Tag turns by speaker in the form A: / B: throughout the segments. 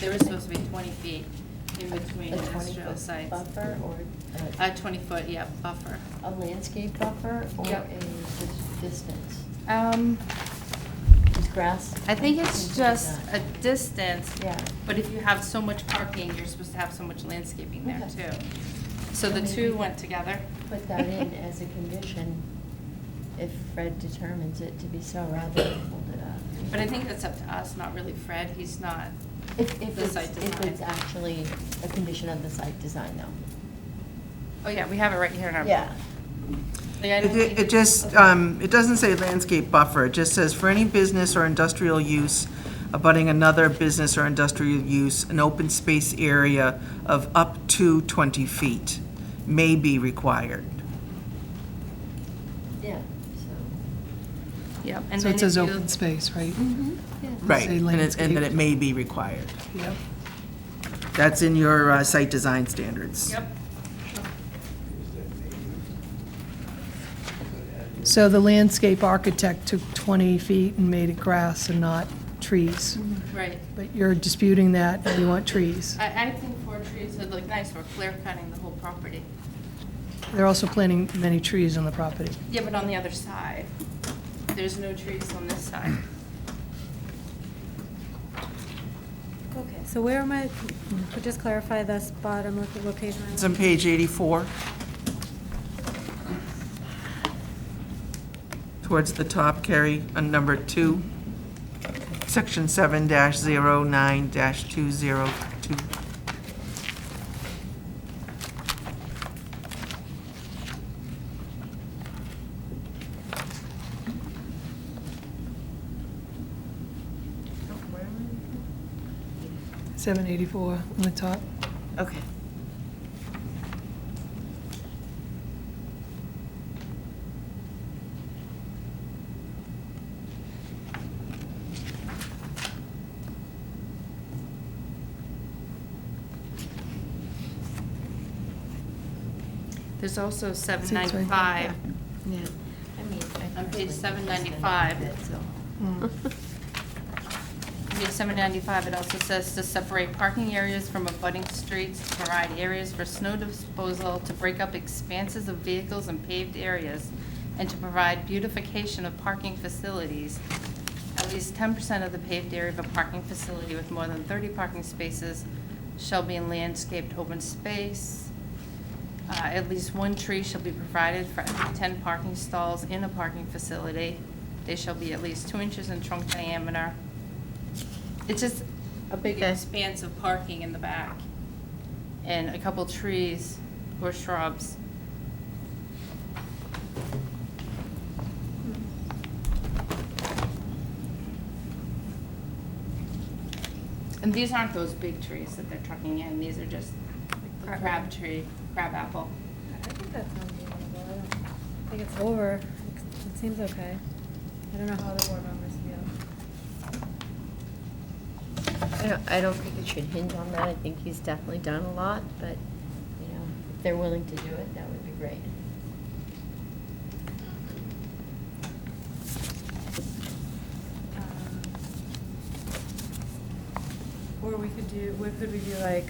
A: There was supposed to be 20 feet in between
B: A 20
A: industrial
B: foot
A: sites.
B: Buffer Oh. or a-
A: A 20-foot, yeah, buffer.
B: a landscape buffer or a
A: Yep.
B: dis- distance?
A: Um,
B: Is grass?
A: I think it's
B: something like
A: just a
B: that?
A: distance.
B: Yeah.
A: But if you have so much parking, you're supposed to have so much landscaping there
B: Okay.
A: too. So the
B: Maybe
A: two went together.
B: Put that in as a condition if Fred determines it to be so rather than hold it up.
A: But I think that's up to us, not really Fred. He's not,
B: If, if
A: the
B: it's,
A: site
B: if
A: design.
B: it's actually a condition of the site design though.
A: oh yeah, we have it right here in our.
B: Yeah.
A: Like, I don't
C: It
A: think-
C: it just, um, it doesn't say landscape buffer, it just says, "For any business or industrial use abutting another business or industrial use, an open space area of up to 20 feet may be required."
B: Yeah, so.
A: Yep. and
D: So
A: then
D: it says
A: if you- Mm-hmm,
D: open space, right?
B: yeah.
C: Right,
D: Say
C: and it- and that it
D: landscape.
C: may be required.
D: Yep.
C: That's in your uh, site design standards.
A: Yep.
D: So the landscape architect took 20 feet and made it grass and not trees.
A: Mm-hmm. Right.
D: But you're disputing that, and you want trees.
A: I, I think four trees would look nice. We're clear cutting the whole property.
D: They're also planting many trees on the property.
A: Yeah, but on the other side, there's no trees on this side.
E: Okay, so where am I, could just clarify this bottom of the location?
C: It's on page 84. Towards the top, Carrie, on number two, section 7-09-202. Where am I?
D: 784 on the top.
C: Okay.
A: There's also seven
D: Six right there.
A: ninety-five.
B: Yeah. I mean, I
A: On page
B: personally just
A: 795.
B: don't like it, so.
A: Mm-hmm.
D: Mm.
A: Page seven ninety-five, it also says to separate parking areas from abutting streets, to provide areas for snow disposal, to break up expanses of vehicles and paved areas, and to provide beautification of parking facilities. At least ten percent of the paved area of a parking facility with more than thirty parking spaces shall be in landscaped open space. Uh, At least one tree shall be provided for every 10 parking stalls in a parking facility. They shall be at least two inches in trunk diameter. It's just a big expanse of parking in the back and a couple trees or shrubs. And these aren't those big trees that they're trucking in, these are just like the
E: Crab
A: crab
E: apple.
A: tree, crab apple.
E: I think that sounds reasonable. I don't think it's over. It's- It seems okay. I don't know how the board members feel.
B: I don't, I don't think it should hinge on that. I think he's definitely done a lot, but, you know, if they're willing to do it, that would be great.
E: Um, Or we could do, what could we do, like,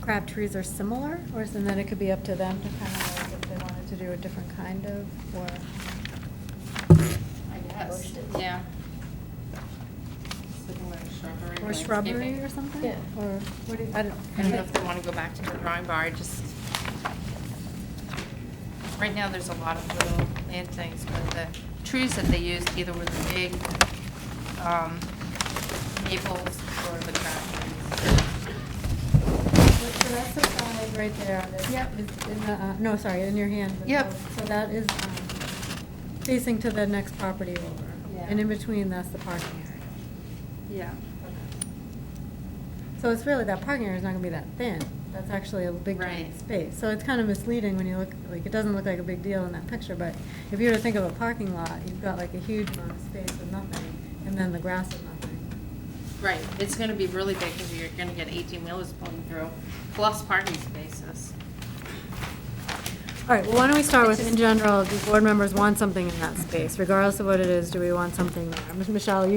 E: crab trees are similar, or is, and then it could be up to them to kind of, like, if they wanted to do a different kind of, or,
A: I guess,
B: Bushes.
A: yeah. Something like shrubbery.
E: or shrubbery
A: landscaping.
E: or something?
B: Yeah.
E: Or, what do you, I don't.
A: I don't know if they want to go back to the drawing board, I just. Right now, there's a lot of little plantings, but the trees that they used either were the big um, maples or the crab
E: So that's the five right there on this.
A: Yep.
E: It's in the, uh, No, sorry, in your hand. but
A: Yep.
E: so- So that is um, facing to the next property over.
A: Yeah.
E: And in between, that's the parking area.
A: trees. Yeah.
E: So it's really, that parking area is not gonna be that thin. That's actually a big giant
A: Right.
E: space. So it's kind of misleading when you look, like, it doesn't look like a big deal in that picture, but if you were to think of a parking lot, you've got like a huge amount of space with nothing, and then the grass is nothing.
A: Right, it's going to be really big because you're going to get 18 wheelers pulling through, plus parking spaces.
E: All right, well, why don't we start with, in general, do board members want something in that space? Regardless of what it is, do we want something there? Michelle, you